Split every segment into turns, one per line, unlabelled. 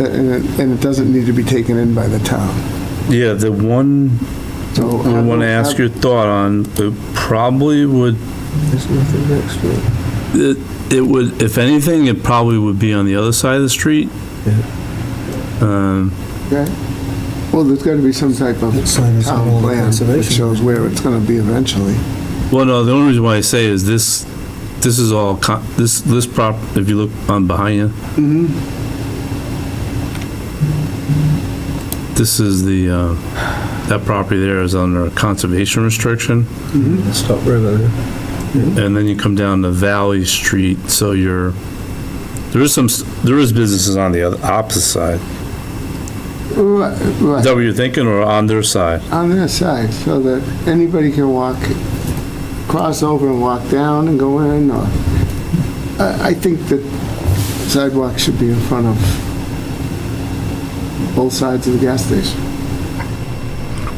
and it- and it doesn't need to be taken in by the town.
Yeah, the one
So. uh,
I want to ask your thought on, it probably would,
There's nothing next to it.
it it would, if anything, it probably would be on the other side of the street. Um,
Okay. Well, there's got to be some type of
That sign is all
town
on
plan that
conservation.
shows where it's going to be eventually.
Well, no, the only reason why I say is this, this is all, co- this, this prop, if you look on behind you. This is the, uh, that property there is under a conservation restriction.
Stop River there.
And then you come down to Valley Street, so you're, there is some, s- there is businesses on the other, opposite side.
Right,
Is
right,
that what you're thinking, or on their side?
on their side, so that anybody can walk, cross over and walk down and go in, or, I, I think that sidewalk should be in front of both sides of the gas station.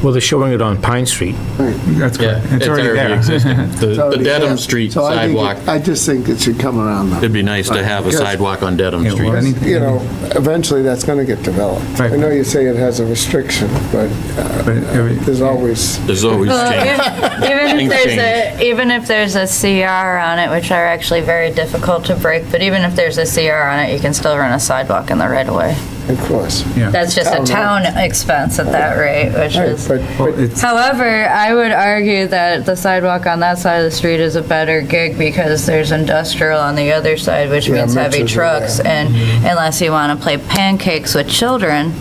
Well, they're showing it on Pine Street.
That's correct. It's already there.
existing.
It's
The the
already there.
Dedham Street
So I think it-
sidewalk,
I just think it should come around though.
it'd be nice to have a
Yes.
sidewalk on Dedham
Yeah, well,
Street.
any-
You know, eventually that's gonna get developed. I
Right.
know you say it has a restriction, but uh,
But every-
there's always,
There's always change.
Even if
Things
there's a, even if there's a CR on it, which are actually very difficult to break, but even if there's a CR on it, you can still run a sidewalk in the right of way.
of course.
Yeah.
That's just a town expense at that rate, which
Right,
is.
But
Well,
but
it's-
However, I would argue that the sidewalk on that side of the street is a better gig because there's industrial on the other side, which
Yeah,
means heavy
mixers are there.
trucks. And
Mm-hmm.
unless you want to play pancakes with children,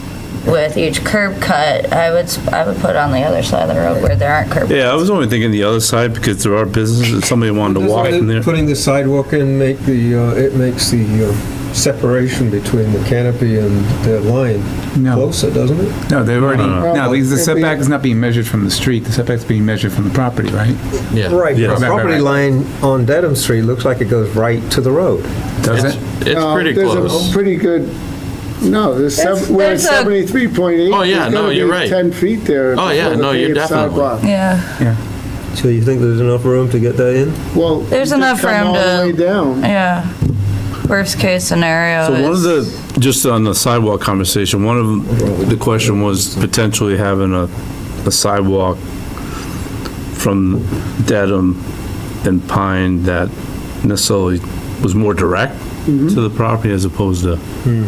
with each curb cut, I would, s- I would put on the other side of the road where there aren't curb.
Yeah, I was only thinking the other side, because there are businesses, if somebody wanted to walk in there.
Putting the sidewalk in make the, uh, it makes the uh, separation between the canopy and the line
No.
closer, doesn't it?
No, they've already,
No,
no, because the
It'd be-
setback is not being measured from the street, the setback's being measured from the property, right?
Yeah.
Right,
Yes.
the property
Right,
line on Dedham Street looks like it goes right to the road.
Does
It's
it?
it's
um,
pretty
there's
close.
a pretty good, no, there's,
That's-
sev- we're at
that's a-
73.8.
Oh, yeah,
there's
no,
gotta
you're
be
right.
10 feet there.
Oh, yeah,
before the
no, you're
paved
definitely-
sidewalk.
Yeah.
So you think there's enough room to get that in?
Well.
There's
just
enough
come
room
all the
to-
way down.
Yeah. Worst case scenario
So one of
is-
the, just on the sidewalk conversation, one of the question was potentially having a, a sidewalk from Dedham and Pine that necessarily was more direct
Mm-hmm.
to the property as opposed to,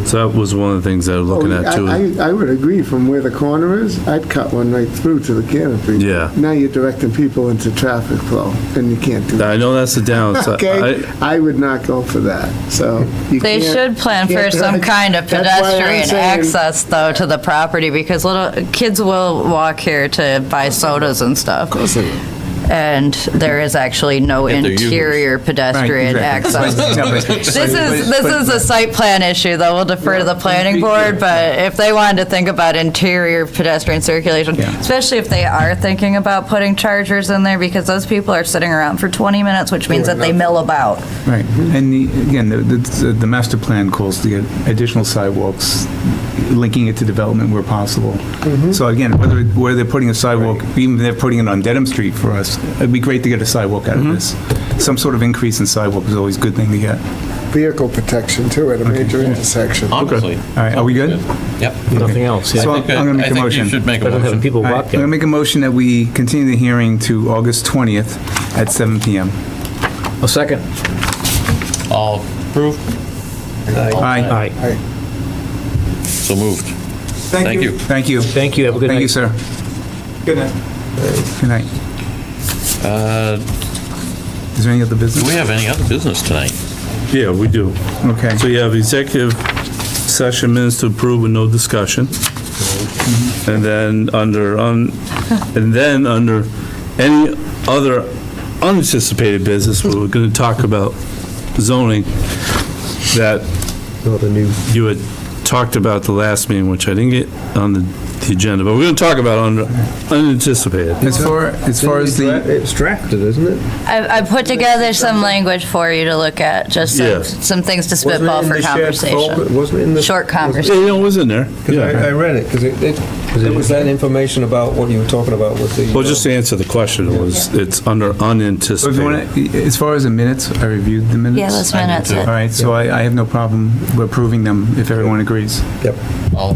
so that was one of the things that I was looking
Oh,
at
I-
too.
I, I would agree, from where the corner is, I'd cut one right through to the canopy.
Yeah.
Now you're directing people into traffic flow, and you can't do that.
I know that's the downside.
Okay,
I-
I would not go for that, so. you
They
can't-
should plan
you
for
can't
some
direct-
kind of
That's why I'm
pedestrian
saying-
access, though, to the property, because little, kids will walk here to buy sodas and stuff. And there is actually no
If they're used.
interior pedestrian access. This is, this is a site plan issue, though, we'll defer to the planning board, but if they wanted to think about interior pedestrian circulation,
Yeah.
especially if they are thinking about putting chargers in there, because those people are sitting around for 20 minutes, which means that they mill about.
Right, and the- again, the- the, the master plan calls to get additional sidewalks, linking it to development where possible. So again, whether, it- where they're putting a sidewalk, even if they're putting it on Dedham Street for us, it'd be great to get a sidewalk out of this. Some sort of increase in sidewalk is always a good thing to get.
Vehicle protection too at a major intersection.
Honestly.
All right, are we good?
Yep.
Nothing else.
So
I
I'm
think,
gonna make
I
a
think you
motion.
should make a
Better than
motion.
people
All right, I'm
walking.
gonna make a motion that we continue the hearing to August 20th at 7 PM.
A second.
All approved,
Aye.
Aye.
so moved. Thank you.
Thank you.
Thank you, have a good night.
Thank you, sir. Good night. Good night.
Uh,
Is there any other
Do
business?
we have any other business tonight?
Yeah, we do.
Okay.
So you have executive session minutes to approve with no discussion. And then under, un- and then under any other unanticipated business, we were gonna talk about zoning that
Not a new
you had talked about the last meeting, which I didn't get on the the agenda, but we're going to talk about un- unanticipated.
As far, as far as the,
It's drafted, isn't it?
I, I put together some language for you to look at, just some,
Yes.
some things to
Wasn't it
spitball
in
for
the shared folder?
conversation.
Wasn't it in the?
Short
Yeah,
conversation.
you know, it was in there.
Because I, I
Yeah.
read it, because it, it, it was that information about what you were talking about with the.
Well, just
uh,
to answer the question, it was, it's under
so if you
unanticipated.
wanna- as far as the minutes, I reviewed the minutes.
Yeah, those
I need
minutes.
to-
it-
All right, so I, I have no problem approving them if everyone agrees.
uh, Yep.
All